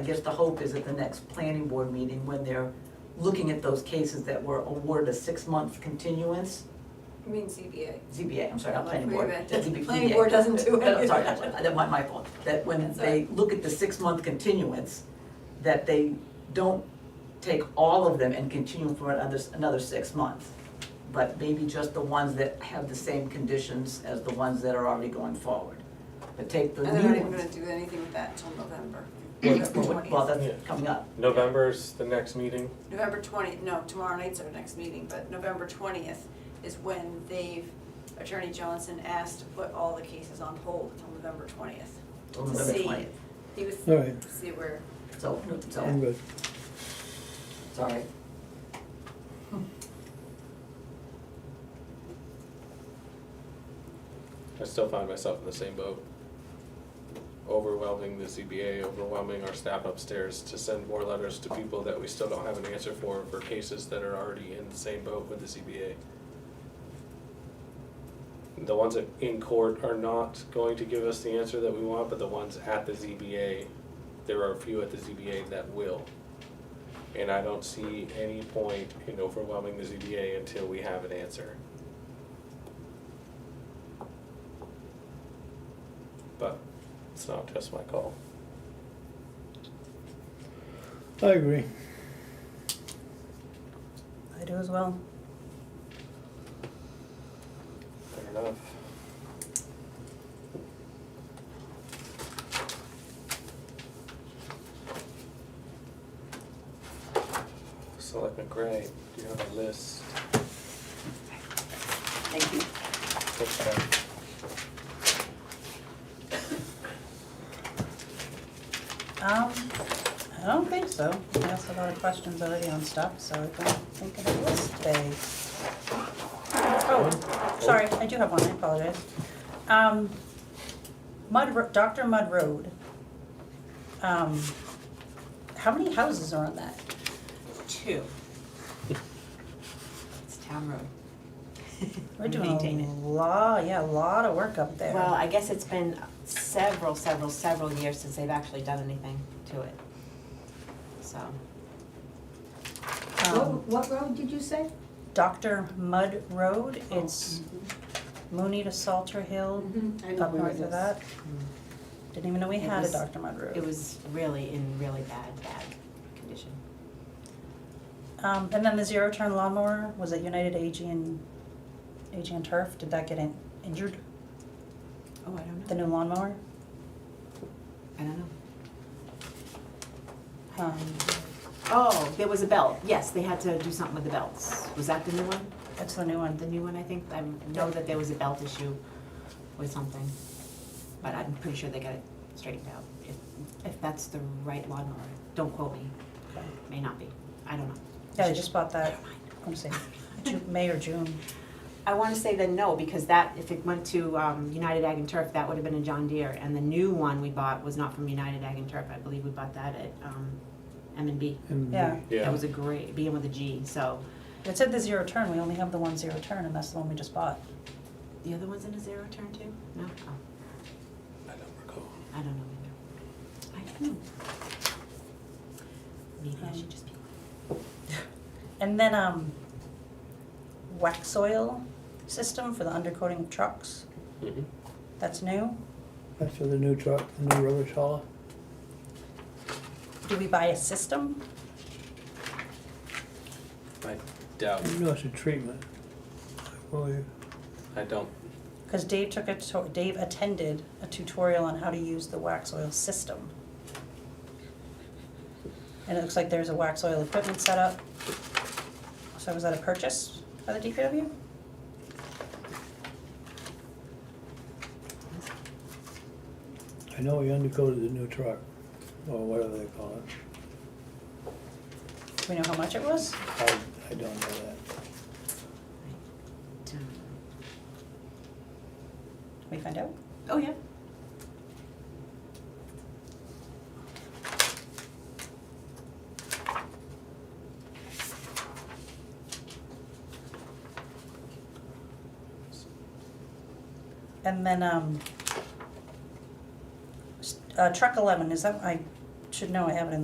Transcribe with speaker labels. Speaker 1: I guess the hope is at the next planning board meeting, when they're looking at those cases that were awarded a six-month continuance,
Speaker 2: I mean ZBA.
Speaker 1: ZBA, I'm sorry, not planning
Speaker 2: Wait a
Speaker 1: board.
Speaker 2: minute.
Speaker 1: that's ZBA.
Speaker 2: Planning board doesn't do
Speaker 1: No,
Speaker 2: it.
Speaker 1: Sorry, that's right, that might, my fault, that when
Speaker 2: That's all
Speaker 1: they look at the six-month continuance, that they don't take all of them and continue them for another, another six months. But maybe just the ones that have the same conditions as the ones that are already going forward. But take the
Speaker 2: And
Speaker 1: new
Speaker 2: they're
Speaker 1: ones.
Speaker 2: not even gonna do anything with that till November,
Speaker 1: Well,
Speaker 2: November
Speaker 1: that's- Well, well,
Speaker 2: twentieth.
Speaker 1: that's coming up.
Speaker 3: November's the next meeting.
Speaker 2: November twentieth, no, tomorrow night's our next meeting, but November twentieth is when they've, Attorney Johnson asked to put all the cases on hold until November twentieth.
Speaker 1: till
Speaker 2: To
Speaker 1: Oh, November
Speaker 2: see.
Speaker 1: 20th.
Speaker 2: He was,
Speaker 4: All right.
Speaker 2: see where,
Speaker 1: So,
Speaker 4: I'm
Speaker 1: so,
Speaker 4: good.
Speaker 1: sorry.
Speaker 3: I still find myself in the same boat. Overwhelming the ZBA, overwhelming our staff upstairs to send more letters to people that we still don't have an answer for, for cases that are already in the same boat with the ZBA. The ones that in court are not going to give us the answer that we want, but the ones at the ZBA, there are a few at the ZBA that will. And I don't see any point in overwhelming the ZBA until we have an answer. But it's not just my call.
Speaker 4: I agree.
Speaker 5: I do as well.
Speaker 3: Fair enough. Selectman Gray, do you have a list?
Speaker 1: Thank you.
Speaker 3: Okay.
Speaker 5: Um, I don't think so. I asked a lot of questions already on stuff, so I don't think I have a list today. Oh, sorry, I do have one, I apologize. Um, Mud, Ro- Dr. Mud Road. Um, how many houses are on that? Two.
Speaker 6: It's town road.
Speaker 5: We're doing
Speaker 6: Maintain
Speaker 5: a
Speaker 6: it.
Speaker 5: lot, yeah, a lot of work up there.
Speaker 6: Well, I guess it's been several, several, several years since they've actually done anything to it. So,
Speaker 5: Um,
Speaker 7: What, what road did you say? Oh,
Speaker 5: Dr. Um, Mud Road, it's Mooney to Salter Hill,
Speaker 7: mm-hmm. I know
Speaker 5: up
Speaker 7: where it
Speaker 5: north of
Speaker 7: is. Mm-hmm.
Speaker 5: that. Didn't even know we
Speaker 6: It
Speaker 5: had a
Speaker 6: was-
Speaker 5: Dr. Mud Road.
Speaker 6: it was really in really bad, bad condition.
Speaker 5: Um, and then the zero turn lawnmower, was it United AG and, AG and Turf, did that get in, injured,
Speaker 6: Oh, I don't
Speaker 5: the
Speaker 6: know.
Speaker 5: new lawnmower?
Speaker 6: I don't know.
Speaker 5: Um,
Speaker 6: Oh, there was a belt. Yes, they had to do something with the belts. Was that the new one?
Speaker 5: that's the new one,
Speaker 6: The new one, I think. I know that there was a belt issue with something. But I'm pretty sure they got it straightened out. If, if that's the right lawnmower, don't quote me.
Speaker 5: Okay.
Speaker 6: May not be. I don't know.
Speaker 5: yeah, I just bought that,
Speaker 6: Never mind.
Speaker 5: I'm saying, Ju- May or June,
Speaker 6: I want to say then no, because that, if it went to um, United Ag and Turf, that would have been a John Deere. And the new one we bought was not from United Ag and Turf. I believe we bought that at um, M and B.
Speaker 4: And
Speaker 5: yeah.
Speaker 3: Yeah.
Speaker 6: That was a great, being with a G. So
Speaker 5: It said the zero turn, we only have the one zero turn, and that's the one we just bought.
Speaker 6: the other one's in a zero turn too? No? Oh,
Speaker 3: I don't recall.
Speaker 6: I don't know either. I don't know. Maybe I should just be.
Speaker 5: And then, um, wax oil system for the undercoating of trucks,
Speaker 3: Mhm.
Speaker 5: that's new.
Speaker 4: That's for the new truck, the new rubbish hauler.
Speaker 5: Do we buy a system?
Speaker 3: I doubt,
Speaker 4: You know it's a treatment. Well, you-
Speaker 3: I don't,
Speaker 5: Because Dave took a, tu- Dave attended a tutorial on how to use the wax oil system. And it looks like there's a wax oil equipment setup. So was that a purchase by the DPW?
Speaker 4: I know we undercoated the new truck, or whatever they call it.
Speaker 5: Do we know how much it was?
Speaker 4: I, I don't know that.
Speaker 6: um,
Speaker 5: Can we find out?
Speaker 6: Oh, yeah.
Speaker 5: And then, um, s- uh, truck eleven, is that, I should know I have it in